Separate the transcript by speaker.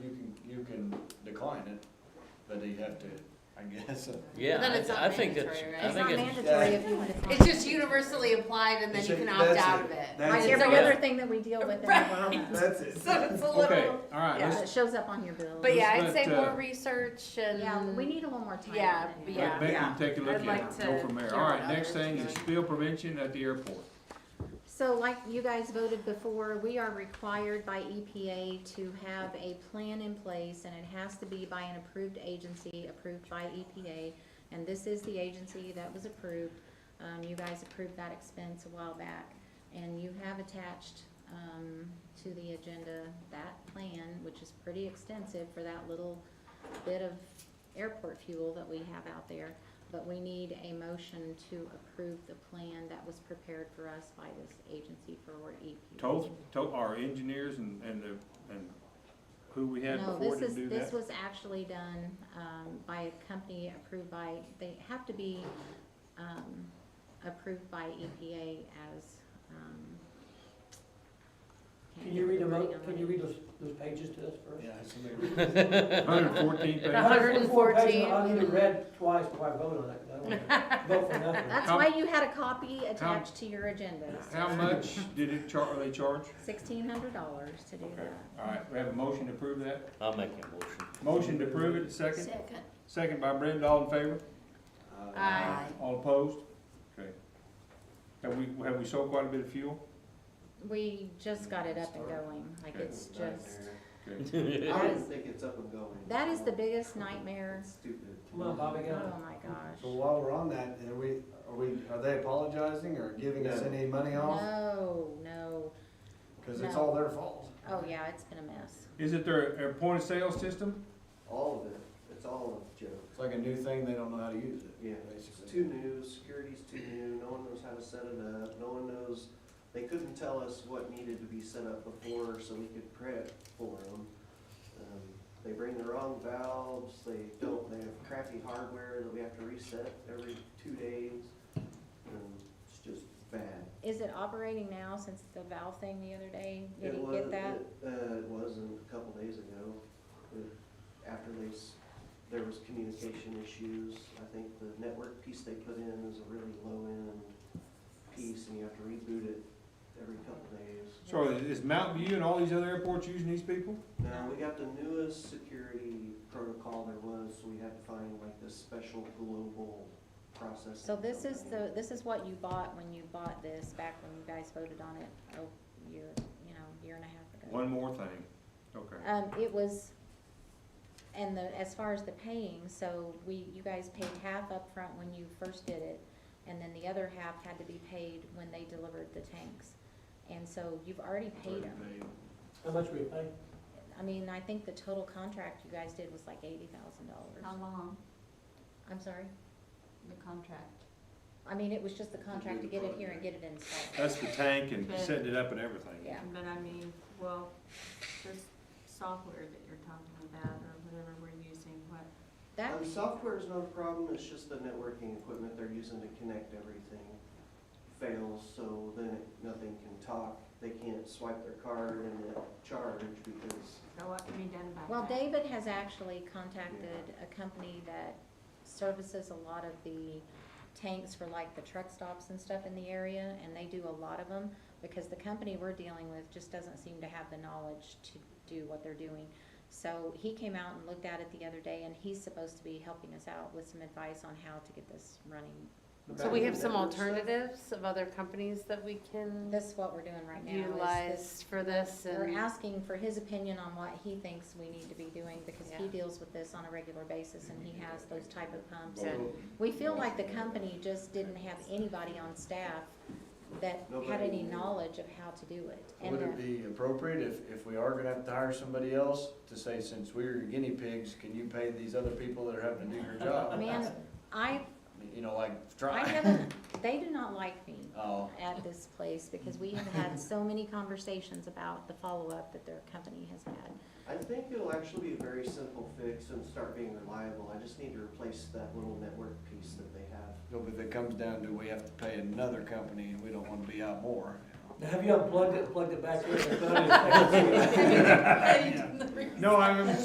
Speaker 1: decline it, but they have to, I guess.
Speaker 2: Yeah,
Speaker 3: But then it's
Speaker 2: I,
Speaker 3: not
Speaker 2: I think that's,
Speaker 3: mandatory,
Speaker 2: I
Speaker 3: right?
Speaker 2: think
Speaker 4: It's
Speaker 2: it's,
Speaker 4: not mandatory if you want to.
Speaker 3: It's just universally applied and then you can opt
Speaker 1: That's
Speaker 3: out of it.
Speaker 1: That's
Speaker 4: Like
Speaker 3: Right,
Speaker 4: every
Speaker 3: so-
Speaker 4: other thing that we deal with in
Speaker 3: Right.
Speaker 4: Obama,
Speaker 1: That's it.
Speaker 3: So it's a
Speaker 5: Okay,
Speaker 3: little,
Speaker 5: all right,
Speaker 4: yeah, it
Speaker 5: let's,
Speaker 4: shows up on your bill.
Speaker 3: but yeah, I'd
Speaker 5: Let's
Speaker 3: say
Speaker 5: let, uh,
Speaker 3: more research
Speaker 4: Yeah, we
Speaker 3: and,
Speaker 4: need a little more time.
Speaker 3: Yeah,
Speaker 4: on it.
Speaker 3: yeah.
Speaker 5: let Becky take a look
Speaker 3: I'd
Speaker 5: at
Speaker 3: like
Speaker 5: it,
Speaker 3: to
Speaker 5: go from there.
Speaker 3: hear
Speaker 5: All
Speaker 3: what
Speaker 5: right, next
Speaker 3: others
Speaker 5: thing is
Speaker 3: think.
Speaker 5: spill prevention at the airport.
Speaker 4: So like you guys voted before, we are required by EPA to have a plan in place and it has to be by an approved agency, approved by E EPA. And this is the agency that was approved. Um, you guys approved that expense a while back. And you have attached, um, to the agenda that plan, which is pretty extensive for that little bit of airport fuel that we have out there. But we need a motion to approve the plan that was prepared for us by this agency for E our EPA.
Speaker 5: Told, told our engineers and, and the, and who we had
Speaker 4: No,
Speaker 5: before
Speaker 4: this
Speaker 5: to
Speaker 4: is,
Speaker 5: do
Speaker 4: this
Speaker 5: that.
Speaker 4: was actually done, um, by a company approved by, they have to be, um, approved by EPA as, um. can't
Speaker 6: Can you read
Speaker 4: remember
Speaker 6: them
Speaker 4: the wording
Speaker 6: out, can
Speaker 4: on
Speaker 6: you
Speaker 4: it.
Speaker 6: read those, those pages to us first?
Speaker 1: Yeah, somebody-
Speaker 5: Hundred and fourteen pages.
Speaker 3: A hundred and
Speaker 6: Four pages,
Speaker 3: fourteen.
Speaker 6: I need to read twice before I vote on it, 'cause I don't want to vote for nothing.
Speaker 4: That's
Speaker 5: How-
Speaker 4: why you had a copy attached to your agenda,
Speaker 5: How much did it char, they charge?
Speaker 4: sixteen hundred dollars to do
Speaker 5: Okay,
Speaker 4: that.
Speaker 5: all right, we have a motion to approve that.
Speaker 2: I'll make a motion.
Speaker 5: Motion to approve it, second, second by Brenda, all in favor?
Speaker 4: Uh,
Speaker 3: Aye.
Speaker 7: Uh,
Speaker 5: All opposed? Okay. Have we, have we sold quite a bit of fuel?
Speaker 4: We just got it up and going, like
Speaker 5: Okay.
Speaker 4: it's just,
Speaker 5: Okay.
Speaker 8: I don't think it's up and going.
Speaker 4: that is the biggest nightmare,
Speaker 8: It's Stupid.
Speaker 6: Come on, Bobby, get on.
Speaker 4: oh my
Speaker 7: So
Speaker 4: gosh.
Speaker 7: while we're on that, are we, are we, are they apologizing or giving us any money off?
Speaker 4: No, no,
Speaker 7: Cause it's
Speaker 4: No.
Speaker 7: all their fault.
Speaker 4: oh yeah, it's been a mess.
Speaker 5: Is it their, their point of sale system?
Speaker 8: All of it, it's all a joke.
Speaker 7: It's like a new thing, they don't know how to use it.
Speaker 8: Yeah,
Speaker 7: basically.
Speaker 8: It's too new, security's too new, no one knows how to set it up, no one knows, they couldn't tell us what needed to be set up before, so we could prep for them. They bring the wrong valves, they don't, they have crappy hardware that we have to reset every two days, and it's just bad.
Speaker 4: Is it operating now since the valve thing the other day? Did
Speaker 8: It
Speaker 4: he
Speaker 8: was-
Speaker 4: get that?
Speaker 8: it- Uh, it wasn't, a couple days ago, It- after they, s- there was communication issues. I think the network piece they put in is a really low-end piece, and you have to reboot it every couple days.
Speaker 5: So is Mountain View and all these other airports using these people?
Speaker 8: Now, we got the newest security protocol there was, so we had to find like this special global processing.
Speaker 4: So this is
Speaker 8: company.
Speaker 4: the, this is what you bought when you bought this, back when you guys voted on it, oh, year, you know, year and a half ago.
Speaker 5: One more thing. Okay.
Speaker 4: Um, it was, and the, as far as the paying, so we, you guys paid half upfront when you first did it, and then the other half had to be paid when they delivered the tanks. And so you've already paid them.
Speaker 6: How much were you paying?
Speaker 4: I mean, I think the total contract you guys did was like eighty thousand
Speaker 3: How
Speaker 4: dollars.
Speaker 3: long,
Speaker 4: I'm sorry?
Speaker 3: the contract?
Speaker 4: I mean, it was just the contract to get it here and get it installed.
Speaker 5: That's the tank and setting it up and everything.
Speaker 4: Yeah.
Speaker 9: But I mean, well, there's software that you're talking about or whatever we're using, what,
Speaker 4: That,
Speaker 8: Um, software is not a problem, it's just the networking equipment they're using to connect everything fails, so then it- nothing can talk. They can't swipe their card and then charge because,
Speaker 9: so what can be done about that?
Speaker 4: well, David has actually contacted a company that services a lot of the tanks for like the truck stops and stuff in the area, and they do a lot of them, because the company we're dealing with just doesn't seem to have the knowledge to do what they're doing. So he came out and looked at it the other day, and he's supposed to be helping us out with some advice on how to get this running.
Speaker 3: So we have some alternatives of other companies that we can
Speaker 4: This is what we're doing right now. is this-
Speaker 3: utilize for this
Speaker 4: We're
Speaker 3: and,
Speaker 4: asking for his opinion on what he thinks we need to be doing, because he
Speaker 3: Yeah.
Speaker 4: deals with this on a regular basis, and he has those type of pumps.
Speaker 3: Good.
Speaker 4: We feel like the company just didn't have anybody on staff that had
Speaker 8: Nobody
Speaker 4: any
Speaker 8: knew.
Speaker 4: knowledge of how to do it. And uh,
Speaker 7: Would
Speaker 4: the-
Speaker 7: it be appropriate if, if we are gonna have to hire somebody else to say, since we're your guinea pigs, can you pay these other people that are having to do your job?
Speaker 4: Man, I,
Speaker 7: You know, like,
Speaker 4: I
Speaker 7: try.
Speaker 4: haven't, they do not like me
Speaker 7: Oh,
Speaker 4: at this place, because we have had so many conversations about the follow-up that their company has had.
Speaker 8: I think it'll actually be a very simple fix and start being reliable. I just need to replace that little network piece that they have.
Speaker 7: no, but if it comes down to we have to pay another company and we don't wanna be out more.
Speaker 6: Now, have you unplugged it, plugged it back in? and put it in?
Speaker 5: No, I'm